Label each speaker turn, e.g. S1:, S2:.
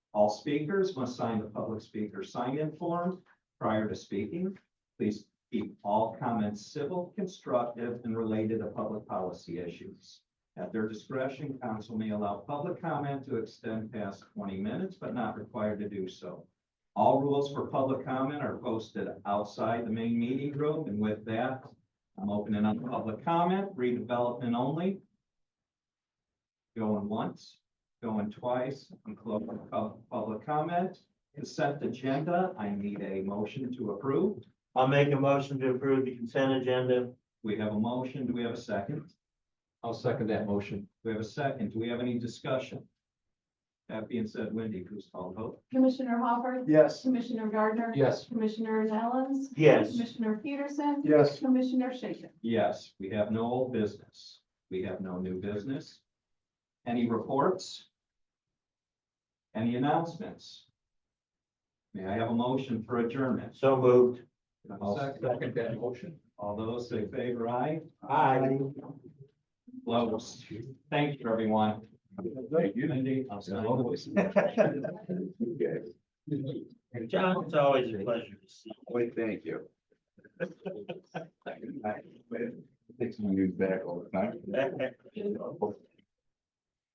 S1: All speakers must sign the public speaker sign-in form prior to speaking. Please keep all comments civil, constructive, and related to public policy issues. At their discretion, council may allow public comment to extend past twenty minutes, but not required to do so. All rules for public comment are posted outside the main meeting room, and with that, I'm opening up public comment, redevelopment only. Going once, going twice, and closing pub- public comment. Consent agenda, I need a motion to approve.
S2: I'll make a motion to approve the consent agenda.
S1: We have a motion. Do we have a second?
S3: I'll second that motion.
S1: Do we have a second? Do we have any discussion? That being said, Wendy, please call the vote.
S4: Commissioner Hopper,
S3: Yes.
S4: Commissioner Gardner.
S3: Yes.
S4: Commissioner Nellens,
S2: Yes,
S4: Commissioner Peterson,
S3: Yes.
S4: Commissioner Shaken.
S1: Yes, we have no old business. We have no new business. Any reports? Any announcements? May I have a motion for adjournment?
S2: so moved.
S1: Do I have a
S3: I'll
S1: second?
S3: second that motion.
S1: All those say favor, aye.
S2: Aye.
S1: Close. Thank you, everyone.
S3: Thank
S1: Wendy, I'll sign this.
S2: John, it's always a pleasure to see you.
S5: Wait, thank you. Takes my news back all the time.